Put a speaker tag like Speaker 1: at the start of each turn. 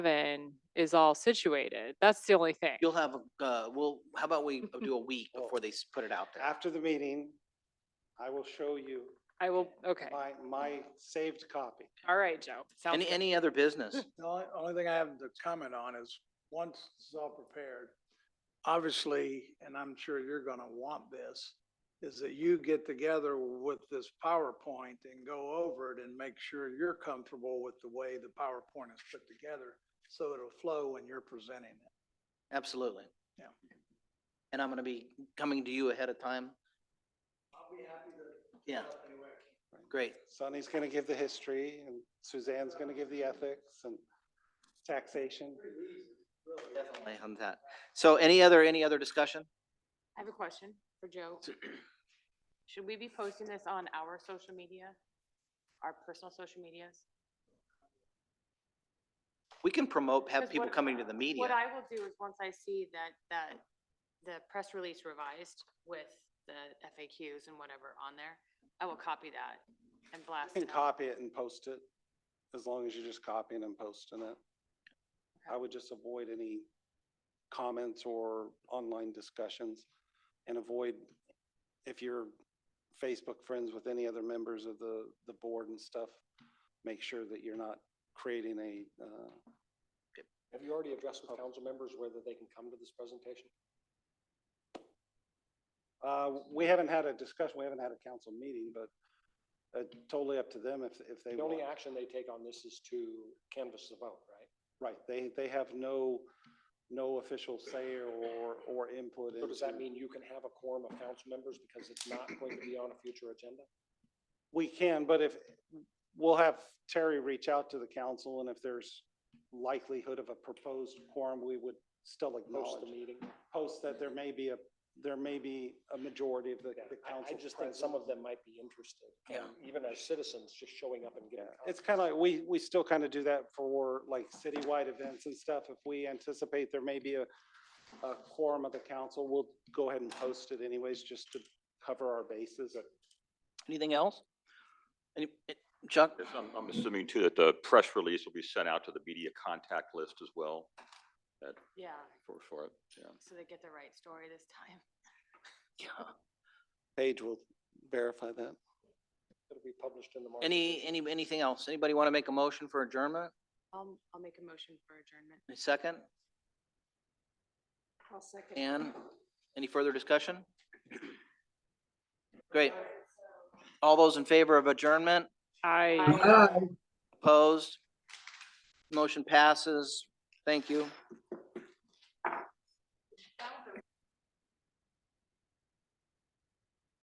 Speaker 1: seven is all situated. That's the only thing.
Speaker 2: You'll have, a- uh, well, how about we do a week before they s- put it out there?
Speaker 3: After the meeting, I will show you
Speaker 1: I will, okay.
Speaker 3: my, my saved copy.
Speaker 1: All right, Joe. Sounds
Speaker 2: Any,
Speaker 1: good.
Speaker 2: any other business?
Speaker 4: The only, only thing I have to comment on is, once it's all prepared, obviously, and I'm sure you're gonna want this, is that you get together with this PowerPoint and go over it and make sure you're comfortable with the way the PowerPoint is put together, so it'll flow when you're presenting it.
Speaker 5: Hmm.
Speaker 2: Absolutely.
Speaker 4: Yeah.
Speaker 2: And I'm gonna be coming to you ahead of time.
Speaker 4: I'll be happy to.
Speaker 2: Yeah, great.
Speaker 3: Sonny's gonna give the history and Suzanne's gonna give the ethics and taxation.
Speaker 2: Definitely on that. So any other, any other discussion?
Speaker 5: I have a question for Joe. Should we be posting this on our social media? Our personal social medias?
Speaker 2: We can promote, have
Speaker 5: 'Cause
Speaker 2: people
Speaker 5: what-
Speaker 2: coming to the media.
Speaker 5: What I will do is once I see that, that the press release revised with the FAQs and whatever on there, I will copy that and blast
Speaker 3: You can
Speaker 5: it out.
Speaker 3: copy it and post it, as long as you're just copying and posting it. I would just avoid any comments or online discussions and avoid, if you're Facebook friends with any other members of the, the board and stuff, make sure that you're not creating a, uh,
Speaker 6: Have you already addressed with council members whether they can come to this presentation?
Speaker 3: Uh, we haven't had a discussion, we haven't had a council meeting, but uh, totally up to them if, if they
Speaker 6: The only
Speaker 3: want.
Speaker 6: action they take on this is to canvass the vote, right?
Speaker 3: Right, they, they have no, no official say or, or input.
Speaker 6: So does that
Speaker 3: into-
Speaker 6: mean you can have a quorum of council members because it's not going to be on a future agenda?
Speaker 3: We can, but if, we'll have Terry reach out to the council and if there's likelihood of a proposed quorum, we would still
Speaker 6: Post
Speaker 3: acknowledge,
Speaker 6: the meeting?
Speaker 3: post that there may be a, there may be a majority of the,
Speaker 6: Yeah,
Speaker 3: the council.
Speaker 6: I, I just think some
Speaker 3: present.
Speaker 6: of them might be interested. Um,
Speaker 2: Yeah.
Speaker 6: Even as citizens, just showing up and
Speaker 3: Yeah,
Speaker 6: getting.
Speaker 3: it's kind of like, we, we still kind of do that for like citywide events and stuff. If we anticipate there may be a, a quorum of the council, we'll go ahead and post it anyways, just to cover our bases.
Speaker 2: Anything else? Any, eh, Chuck?
Speaker 7: Yes, I'm, I'm assuming too that the press release will be sent out to the media contact list as well
Speaker 5: Yeah,
Speaker 7: for, for it, yeah.
Speaker 5: so they get the right story this time.
Speaker 3: Paige will verify that.
Speaker 6: It'll be published in the market.
Speaker 2: Any, any, anything else? Anybody want to make a motion for adjournment?
Speaker 5: I'll, Um, I'll make a motion for adjournment.
Speaker 2: A second?
Speaker 5: I'll second.
Speaker 2: Ann, any further discussion? Great. All those in favor of adjournment,
Speaker 1: I.
Speaker 2: opposed? Motion passes. Thank you.